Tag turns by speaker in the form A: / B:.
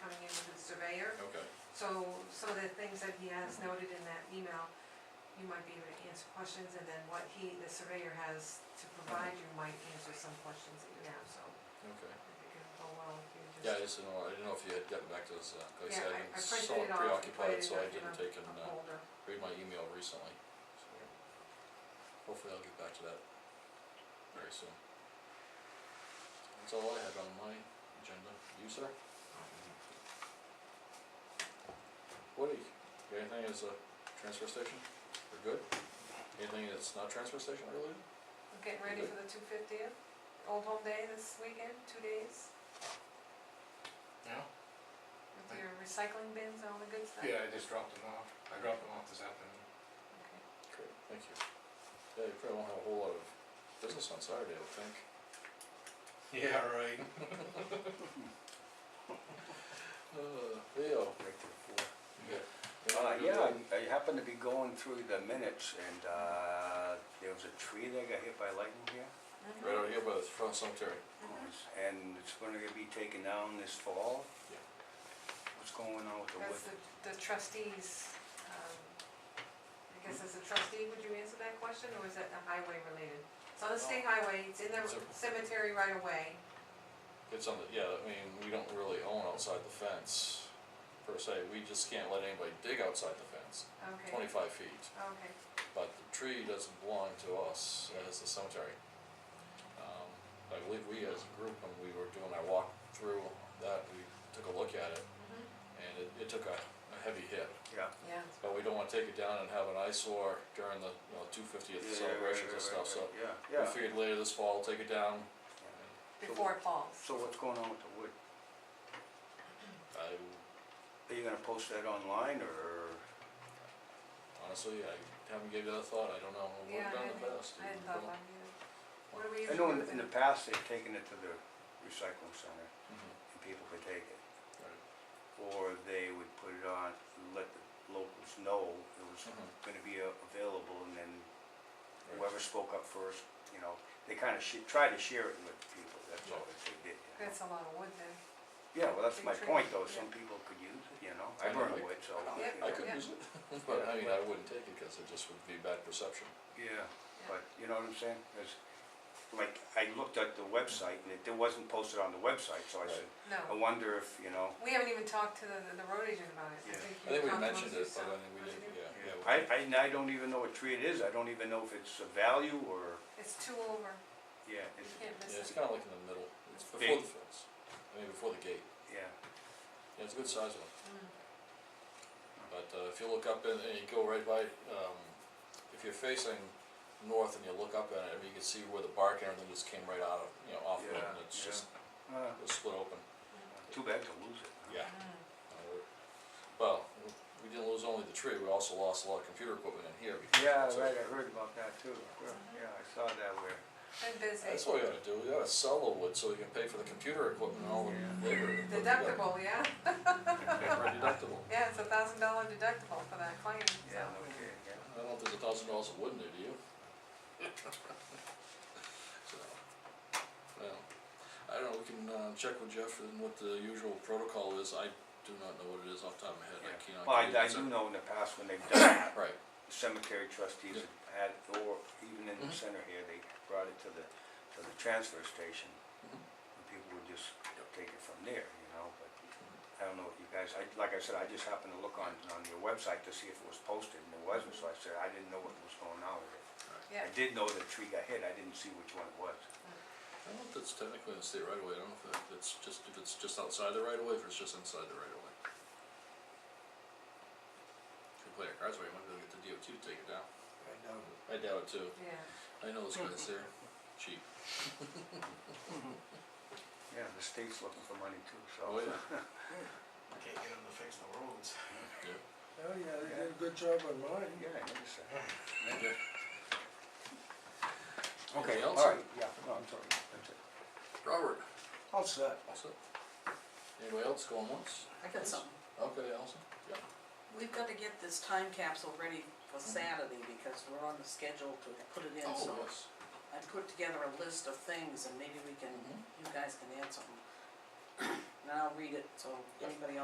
A: the things that he has noted in that email, you might be able to answer questions, and then what he, the surveyor has to provide you might answer some questions that you have, so
B: Okay.
A: I think it'll go well if you just.
B: Yeah, I just didn't know, I didn't know if you had gotten back to us, uh, like I said,
A: Yeah, I- I
B: I've been
A: printed
B: so
A: it off and put
B: preoccupied,
A: it
B: so I
A: in
B: didn't
A: a-
B: take and,
A: A
B: uh,
A: folder.
B: read my email recently, so. Hopefully I'll get back to that very soon. That's all I had on my agenda, you sir? Mm-hmm. Woody, you got anything as a transfer station, we're good? Anything that's not transfer station related?
A: I'm getting ready for the two fiftieth, Old Home Day this weekend, two days,
C: Yeah?
A: with your recycling bins and all the good stuff.
C: Yeah, I just dropped them off, I dropped them off this afternoon.
A: Okay.
B: Great, thank you. Yeah, you probably won't have a whole lot of business on Saturday, I would think.
C: Yeah, right.
B: Uh, Leo,
D: Right to the floor.
B: Yeah.
D: Uh, yeah, I- I happened to be going through the minutes and, uh, there was a tree that got hit by lightning here.
A: Mhm.
B: Right over here by the front cemetery.
A: Mhm.
D: And it's gonna be taken down this fall.
B: Yeah.
D: What's going on with the
A: That's
D: wood?
A: the, the trustees, um, I guess as a trustee, would you answer that question, or is that the highway related? It's on the state highway, it's in the
B: It's a-
A: cemetery right away,
B: It's on the, yeah, I mean, we don't really own outside the fence per se, we just can't let anybody dig outside the fence,
A: okay,
B: twenty-five feet.
A: okay,
B: But the tree doesn't belong to us as the cemetery. Um, I believe we as a group, when we were doing our walk through that, we took a look at it
A: mhm,
B: and it, it took a, a heavy hit.
D: Yeah,
A: yeah.
B: But we don't wanna take it down and have an eyesore during the, you know, two fiftieth
D: Yeah, yeah,
B: celebrations
D: right,
B: and
D: right,
B: stuff, so.
D: right, Yeah,
B: We
D: yeah.
B: figured later this fall, take it down,
A: Before it falls.
D: So what's going on with the wood?
B: I
D: Are you gonna post that online or?
B: Honestly, I haven't given that a thought, I don't know, what
A: Yeah,
B: we've
A: I
B: done in the
A: hadn't-
B: past.
A: I hadn't thought about it either. What do we
D: I
A: usually
D: know
A: do
D: in,
A: with
D: in the
A: it?
D: past, they've taken it to the recycling center
B: Mhm,
D: and people could take it.
B: right.
D: Or they would put it on, let the locals know it was
B: Mhm.
D: gonna be uh, available and then
B: Right.
D: whoever spoke up first, you know, they kinda sh- try to share it with people, that's all that they did. you know.
A: That's a lot of wood then.
D: Yeah, well, that's
A: Big
D: my
A: tree,
D: point though,
A: yeah. Oh,
D: some people could use it, you know,
B: I
D: I
B: know,
D: burn
B: I-
D: wood, so.
A: Yeah.
D: you
B: I
D: know.
B: could
A: Yeah.
B: use it, but I mean, I wouldn't take it, cause it just would be bad perception.
D: Yeah, but you know what I'm saying, 'Cause, like, I looked at the website and it, it wasn't posted on the website, so I said, I
A: No,
D: wonder if, you know,
A: we haven't even talked to the, the road agent about it.
D: Yeah.
B: I think
A: you
B: we
A: talked amongst
B: mentioned it, but I
A: yourself.
B: think we
A: Did
B: didn't,
A: you?
B: yeah, yeah. we-
D: I, I, and I don't even know what tree it is, I don't even know if it's a value or,
A: It's two over,
D: yeah,
A: you
D: it's,
A: can't
B: Yeah, it's
A: miss it.
B: kinda like in the middle, it's
D: Big.
B: before the fence, I mean, before the gate,
D: yeah.
B: yeah, it's a good size one,
A: Mm.
B: but, uh, if you look up and, and you go right by, um, if you're facing north and you look up at it, I mean, you can see where the bark and everything just came right out of, you know, off of it,
D: Yeah,
B: and it's
D: yeah.
B: just,
D: Uh,
B: it was split open,
D: Too bad to lose it. huh?
B: yeah.
A: Mm.
B: Uh, Well, we didn't lose only the tree, we also lost a lot of computer equipment in here. because-
D: Yeah,
B: so
D: right, I heard about that too, yeah, yeah, I saw that where,
A: Been busy.
B: That's what we gotta do, we gotta sell the wood so we can pay for the computer equipment and all the labor. we put together.
A: Deductible, yeah,
B: Yeah, for Deductible.
A: yeah, it's a thousand dollar deductible for that claim, so.
D: yeah, no kidding, yeah.
B: I don't know if there's a thousand dollars of wood in there, do you? So, well, I don't know, we can, uh, check with Jeff and what the usual protocol is, I do not know what it is off the top of my head,
D: Yeah.
B: I cannot.
D: Well, I,
B: give you
D: I
B: that.
D: do know in the past when they've done that,
B: Right,
D: the cemetery trustees have had, or even in the
B: Mhm.
D: center here, they brought it to the, to the transfer station.
B: Mhm.
D: And people would just take it from there, you know, but I don't know what you guys, I, like I said, I just happened to look on, on your website to see if it was posted and it wasn't, so I said, I didn't know what was going on with it.
A: Yeah,
D: I did know the tree got hit, I didn't see which one it was.
B: I don't know if that's technically in the state right away. I don't know if that- it's just, if it's just outside the right of way, if it's just inside the right of way. If you play our cards right, you might be able to get the DOT to take it down. I doubt it too,
A: yeah.
B: I know those guys there, cheap.
D: Yeah, the state's looking for money too, so.
B: Oh, yeah.
C: Can't get them to fix the roads.
E: Oh, yeah, they did a good job on mine. Ah.
D: Yeah, I noticed that.
B: Okay.
D: Okay,
B: Anything
D: all
B: else?
D: right, yeah, no, I'm sorry, that's it.
B: Robert,
E: All set.
B: what's up? Anybody else going once?
F: I got something.
B: Okay, Allison? Yeah.
F: We've gotta get this time capsule ready for Saturday because we're on the schedule to put it in, so
B: Oh, yes.
F: I put together a list of things and maybe we can,
B: Mhm.
F: you guys can add something. And I'll read it, so
B: Yeah.
F: anybody else